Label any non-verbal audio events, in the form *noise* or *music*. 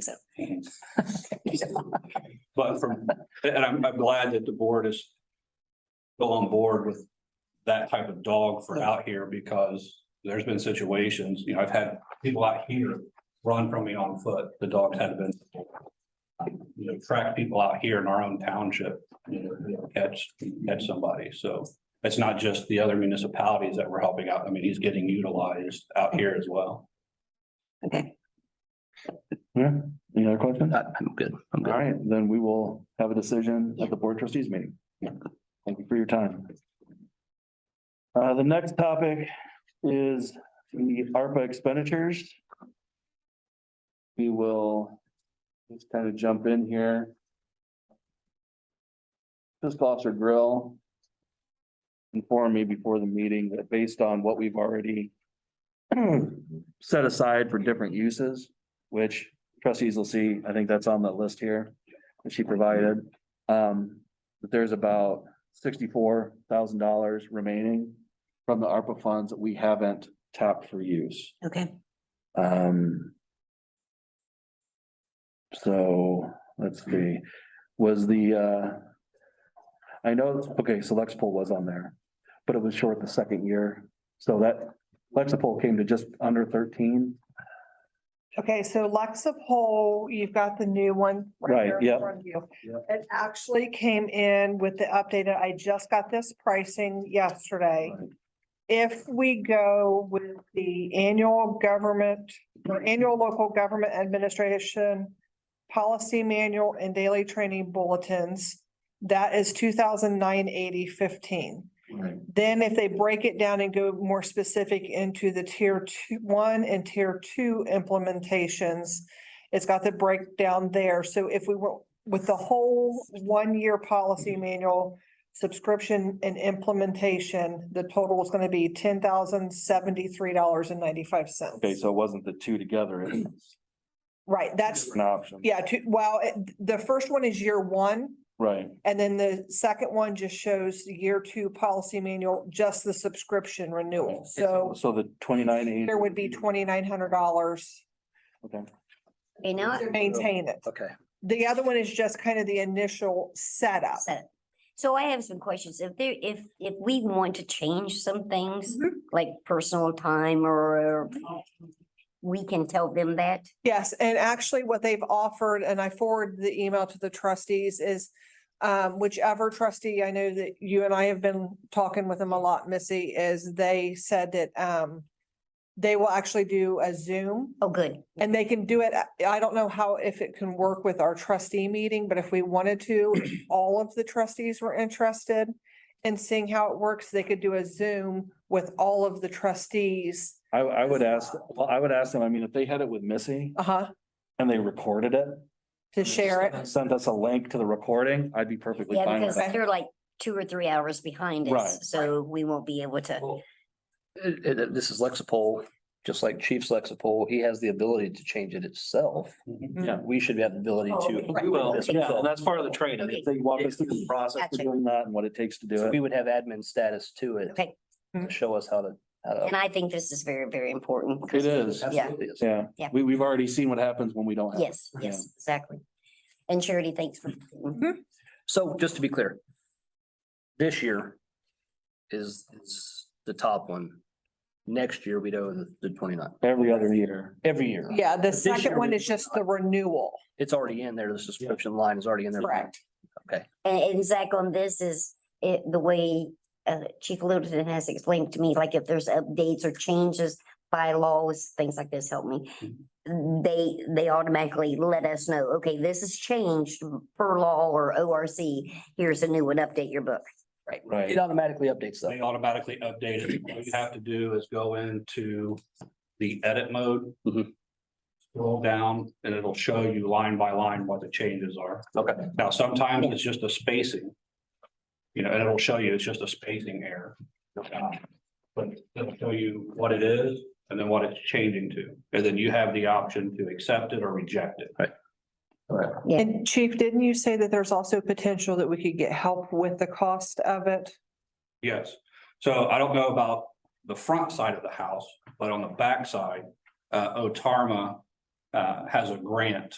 think so. But from, and I'm, I'm glad that the board is still on board with that type of dog for out here because there's been situations, you know, I've had people out here run from me on foot. The dogs had been you know, track people out here in our own township, you know, you know, catch, catch somebody. So it's not just the other municipalities that we're helping out. I mean, he's getting utilized out here as well. Okay, Yeah, any other questions? I- Uh, I'm good. I'm All good. right, then we will have a decision at the board trustees meeting. Thank you for your time. Uh, the next topic is the ARPA expenditures. We will just kind of jump in here. Fiscal Officer Grill informed me before the meeting that based on what we've already *clears throat* set aside for different uses, which trustees will see, I think that's on the list here that she provided. Um, that there's about sixty-four thousand dollars remaining from the ARPA funds that we haven't tapped for use. okay. Um. So, let's see, was the, uh. I know, okay, so Lexipol was on there, but it was short the second year, so that Lexipol came to just under thirteen. Okay, so Lexapol, you've got the new one. Right, here in yep. front of you. Yep. It actually came in with the updated, I just got this pricing yesterday. If we go with the annual government, or annual local government administration policy manual and daily training bulletins, that is two thousand nine eighty fifteen. Right. Then if they break it down and go more specific into the tier two, one and tier two implementations, it's got the breakdown there. So if we were with the whole one-year policy manual subscription and implementation, the total is gonna be ten thousand seventy-three dollars and ninety-five cents. Okay, so it wasn't the two together, it was Right, that's, an option. yeah, two, well, it- the first one is year one. Right, And then the second one just shows the year two policy manual, just the subscription renewal. So so the twenty-nine eight. there would be twenty-nine hundred dollars Okay, Okay, now to maintain it. Okay. The other one is just kind of the initial setup. set. So I have some questions. If there, if, if we want to change some things, like personal time or we can tell them that? Yes, and actually what they've offered, and I forwarded the email to the trustees, is um, whichever trustee, I know that you and I have been talking with them a lot, Missy, is they said that um, they will actually do a Zoom Oh, good. And they can do it, I- I don't know how, if it can work with our trustee meeting, but if we wanted to, if all of the trustees were interested in seeing how it works, they could do a Zoom with all of the trustees. I, I would ask, well, I would ask them, I mean, if they had it with Missy Uh-huh, and they recorded it. to share it. Sent us a link to the recording, I'd be perfectly Yeah, fine because with that. they're like two or three hours behind Right. us, so we won't be able to. It- it- this is Lexipol, just like Chief's Lexipol, he has the ability to change it itself. Yeah. We should have the ability Oh, to. okay. do Well, this Yeah, ourselves. and that's part of the training. Okay. If They walk us through the process of Gotcha. doing that and what it takes to do So it. We would have admin status to it. Okay. To show us how to, how And to. I think this is very, very important. 'cause- It is, Absolutely. yeah. Yeah. We, we've already seen what happens when we don't have. it. Yes, Yeah. Mm-hmm. yes, exactly. And Charity, thanks for. So just to be clear. This year is, is the top one. Next year, we know the, the twenty-nine, Every other year. every year. Yeah, the This year second one we- is just the renewal, It's already in there. The subscription line is already in there. correct? And E, and Zach, on this is it, the way uh Chief Littleton has explained to me, like if there's updates or changes, bylaws, things like this, help me. They, they automatically let us know, okay, this has changed per law or ORC, here's a new one, update your book. Right. It automatically updates They that. automatically update it. All you have to do is go into the edit mode. Mhm. Scroll down and it'll show you line by line what the changes are. Okay. Now, sometimes it's just a spacing. You know, and it'll show you it's just a spacing error. Um, But it'll show you what it is and then what it's changing to. And then you have the option to accept it or reject it. Yeah. And Chief, didn't you say that there's also potential that we could get help with the cost of it? Yes, so I don't know about the front side of the house, but on the back side, uh, Otarma. uh, has a grant